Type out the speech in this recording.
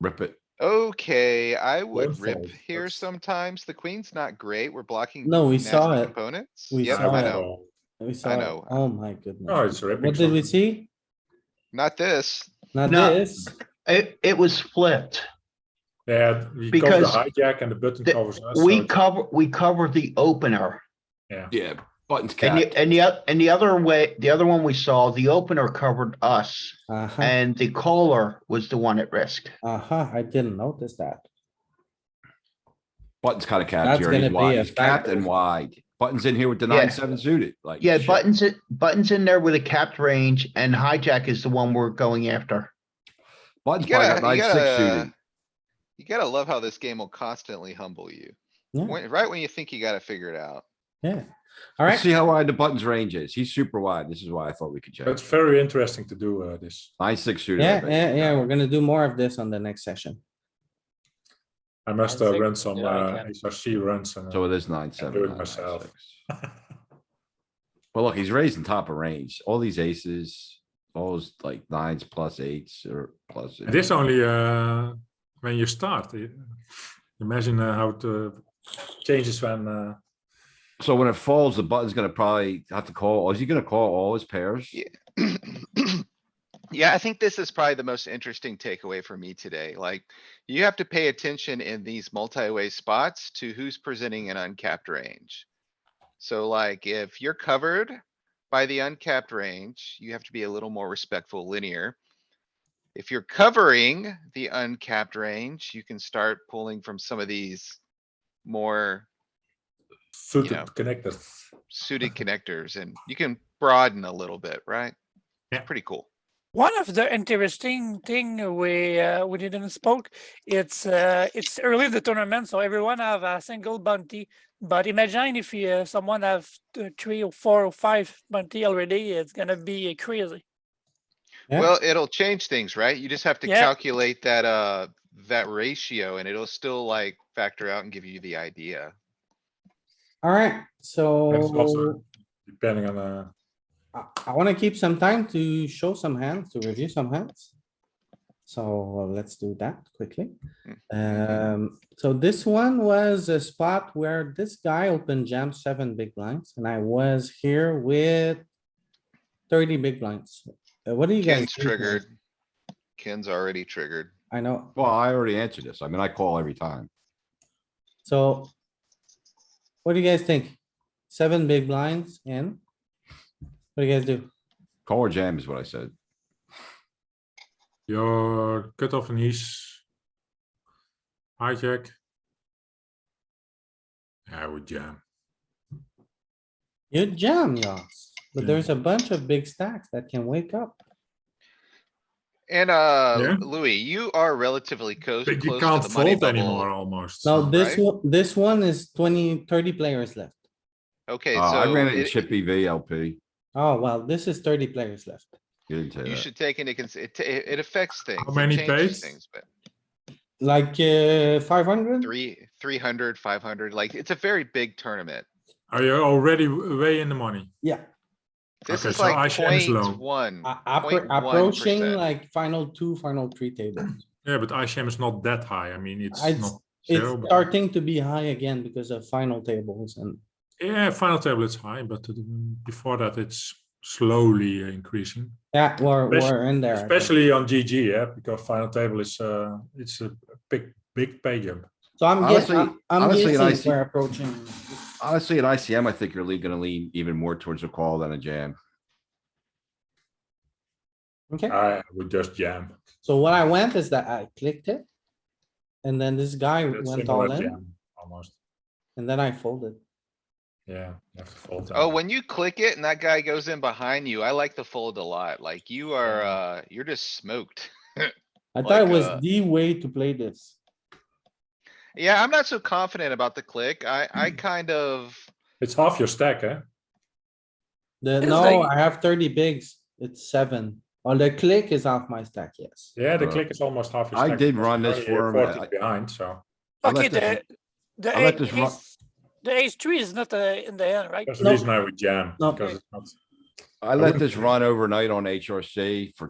Rip it. Okay, I would Both rip sides, here that's- sometimes. The queen's not great. We're blocking. No, we nasty saw it. Opponents. We Yep, saw I it. know. We saw, it. know. oh my goodness. Oh, it's ripping. What did we something. see? Not this. Not No. this. It, it was flipped. Yeah, we cover the Because hijack and the button the- covers us. so We it's- cover, we covered the opener. Yeah, button's And capped. the, and the, oth- and the other way, the other one we saw, the opener covered us Aha, and the caller was the one at risk. aha, Uh-huh, I didn't notice that. Button's kind of That's capped here. and gonna He's be wide. a He's capped factor. and wide. Button's in here with the Yeah. nine, seven suited, like. Yeah, shit. buttons, it buttons in there with a capped range and hijack is the one we're going after. Button's You probably got gotta, nine, you six suited. gotta. uh, You gotta love how this game will constantly humble you. Yeah. When- right when you think you gotta figure it out. Yeah. Let's Alright, see how wide the button's range is. He's super wide. This is why I thought we could check. That's very interesting to do uh, this. Nine, six suited. I yeah, bet. yeah, yeah, we're gonna do more of this on the next session. I must I uh, think- run some yeah, I uh, can. HRC runs. And, uh, So it is nine, seven, it nine, nine, myself. six. Well, look, he's raising top of range. All these aces, all those like nines plus eights or plus. and this only uh, when you start. i- Imagine uh, how it uh, changes when. Uh, So when it falls, the button's gonna probably have to call. Is he gonna call all his pairs? Yeah. Yeah, I think this is probably the most interesting takeaway for me today. Like, you have to pay attention in these multi-way spots to who's presenting an uncapped range. So like, if you're covered by the uncapped range, you have to be a little more respectful linear. If you're covering the uncapped range, you can start pulling from some of these more suited know. connected. suited connectors and you can broaden a little bit, right? Yeah. Pretty cool. One of the interesting thing we uh, we didn't spoke. It's uh, it's early in the tournament, so everyone have a single bounty. But imagine if you, uh, someone have t- three or four or five bounty already, it's gonna be uh, crazy. Yeah. Well, it'll change things, right? You just have to Yeah. calculate that, uh, that ratio and it'll still like factor out and give you the idea. Alright, And it's also so depending on. Uh, I, I wanna keep some time to show some hands, to review some hands. So let's do that quickly. Mm-hmm. Um, so this one was a spot where this guy opened jam seven big blinds and I was here with thirty big blinds. Uh, What do you guys? Ken's think, man? triggered. Ken's already triggered. I know, Well, I already answered this. I mean, I call every time. so what do you guys think? Seven big blinds in? What do you guys do? Call or jam is what I said. Your cutoff and he's hijack. I would jam. You jam, Yoss, Hmm. but Yeah. there's a bunch of big stacks that can wake up. And, uh, Yeah. Louis, you are relatively close, But you close to can't the money fold anymore bubble. almost. Now, so- this right? one, this one is 20, 30 players left. Okay, Uh, Oh, so. I ran it in it- chip E EV LP. Oh, well, this is thirty players left. You didn't say You that. should take into cons, it, it it affects things. it many changes pages? Things, but Like, uh, five hundred? three, three hundred, five hundred, like, it's a very big tournament. Are you already w- way in the money? Yeah, This Okay, is so like ICM is low. point one. a- appro- 0.1%. approaching like final two, final three tables. Yeah, but ICM is not that high. I mean, it's It's- not zero. It's but- starting to be high again because of final tables and Yeah, final table it's high, but uh, before that it's slowly uh, increasing. yeah, we're, Especially- we're in there. I think. Especially on GG, yeah, because final table is uh, it's a big, big pay jump. So I'm guessing, Honestly- I'm honestly, and I guessing see- we're approaching. Honestly, at ICM, I think you're lea- gonna lean even more towards a call than a jam. Okay, I would just jam. so what I went is that I clicked it. And then this guy That's went similar all in jam, Almost, and then I folded. yeah. you have to fold Oh, down. when you click it and that guy goes in behind you, I like the fold a lot. Like you are, uh, you're just smoked. I thought it Like, was uh, the way to play this. Yeah, I'm not so confident about the click. I, I kind of, It's half your stack, eh? The, It's no, like- I have thirty bigs, it's seven. On the click is off my stack, yes. Yeah, the Uh, click is almost half. your I stack did because run you're this already for him, uh, I- 40 Behind, so I let Okay, this the run- the I let ace, this run- ace- the ace three is not uh, in the end, right? that's the No. reason I would jam, No. because it's not I let wouldn't this think- run overnight on HRC for